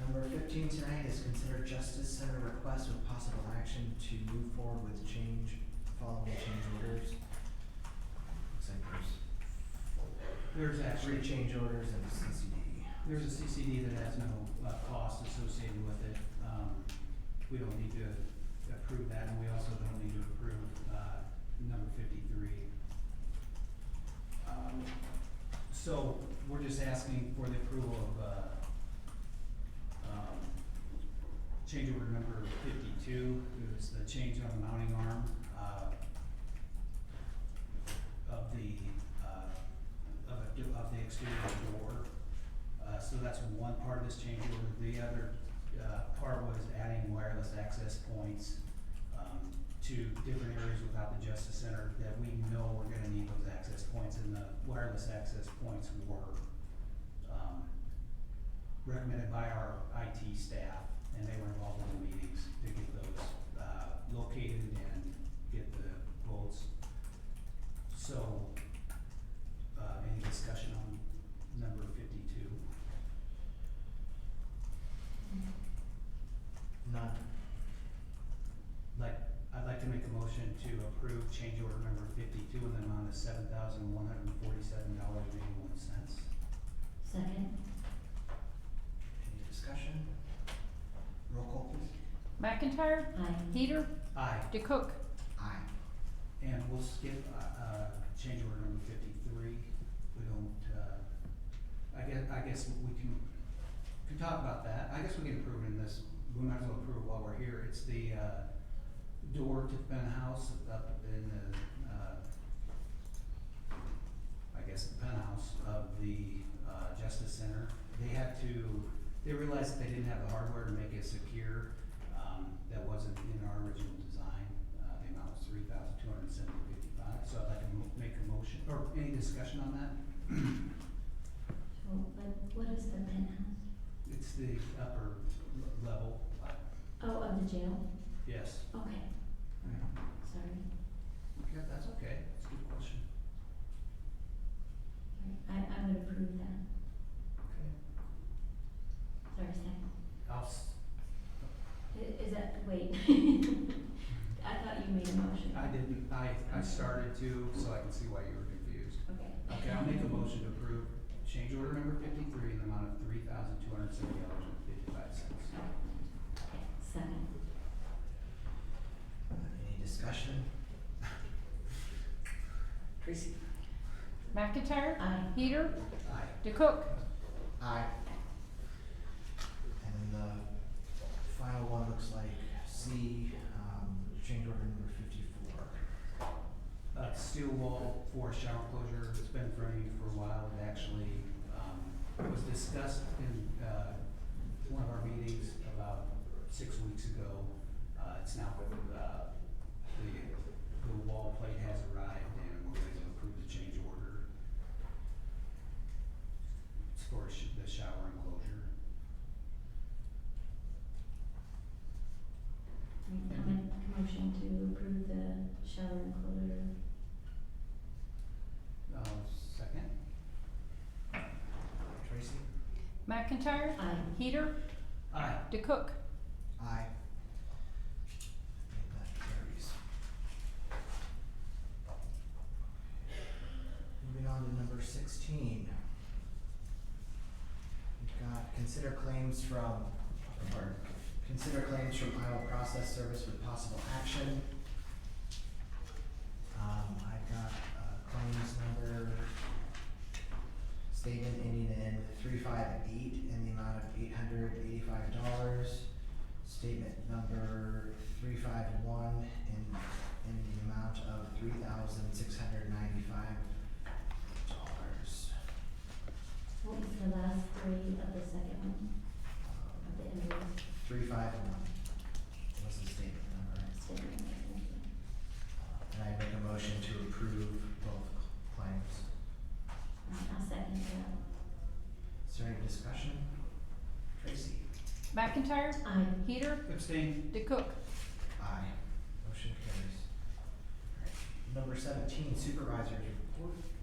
Number fifteen tonight is consider Justice Center request with possible action to move forward with change, following change orders. Looks like there's There's three actually, change orders and a CCD. there's a CCD that has no, uh, cost associated with it. Um, we don't need to approve that, and we also don't need to approve, uh, number fifty-three. Um, so we're just asking for the approval of, uh, um, change order number fifty-two, it was the change on the mounting arm, uh, of the, uh, of a, of the exterior door. Uh, so that's one part of this change order. The other, uh, part was adding wireless access points, um, to different areas without the Justice Center that we know we're gonna need those access points and the wireless access points were, um, recommended by our IT staff and they were involved in the meetings to get those, uh, located and get the votes. So, uh, any discussion on number fifty-two? None. Like, I'd like to make a motion to approve change order number fifty-two in the amount of seven thousand one hundred and forty-seven dollars and eighty-one cents. Second. Any discussion? Roll call please. McIntyre, Aye. Heater, Aye, DeCook, Aye. and we'll skip, uh, uh, change order number fifty-three. We don't, uh, I guess, I guess we can, we can talk about that. I guess we can approve it in this, we might as well approve while we're here. It's the, uh, door to Penn House up in the, uh, I guess the penthouse of the, uh, Justice Center. They had to, they realized that they didn't have the hardware to make it secure, um, that wasn't in our original design. Uh, the amount was three thousand two hundred and seventy fifty-five, so I'd like to mo- make a motion, or any discussion on that? So, but what is the penthouse? It's the upper l- level, uh, Oh, of the jail? yes. Okay, sorry. Yeah, that's okay, that's a good question. I, I would approve that. Okay. Sorry, second. I'll, s- I- Is that, wait. I thought you made a motion. I didn't, I, I started to, so I can see why you were confused. Okay. Okay, I'll make a motion to approve change order number fifty-three in the amount of three thousand two hundred seventy dollars and fifty-five cents. Okay, Second. Any discussion? Tracy? McIntyre, Aye. Heater, Aye. DeCook, Aye. And then the final one looks like C, um, change order number fifty-four. Uh, steel wall for shower closure, it's been in front of you for a while, it actually, um, was discussed in, uh, one of our meetings about six weeks ago. Uh, it's now, uh, the, the wall plate has arrived and we're ready to approve the change order. It's for sh- the shower enclosure. Right, I'll make a motion to approve the shower enclosure. Uh, second? Tracy? McIntyre, Aye. Heater, Aye. DeCook. Aye. And that carries. Moving on to number sixteen. We've got consider claims from, or consider claims from Iowa Process Service with possible action. Um, I've got, uh, claims number statement ending in three five eight in the amount of eight hundred eighty-five dollars. Statement number three five one in, in the amount of three thousand six hundred ninety-five dollars. What was the last three of the second one, of the invoice Three five one was the statement number. statement? Uh, And I make a motion to approve both claims. Right, I'll second that. Is there any discussion? Tracy? McIntyre, Aye. Heater, Abstain. DeCook. Aye. Motion carries. Number seventeen, supervisor's report. Um,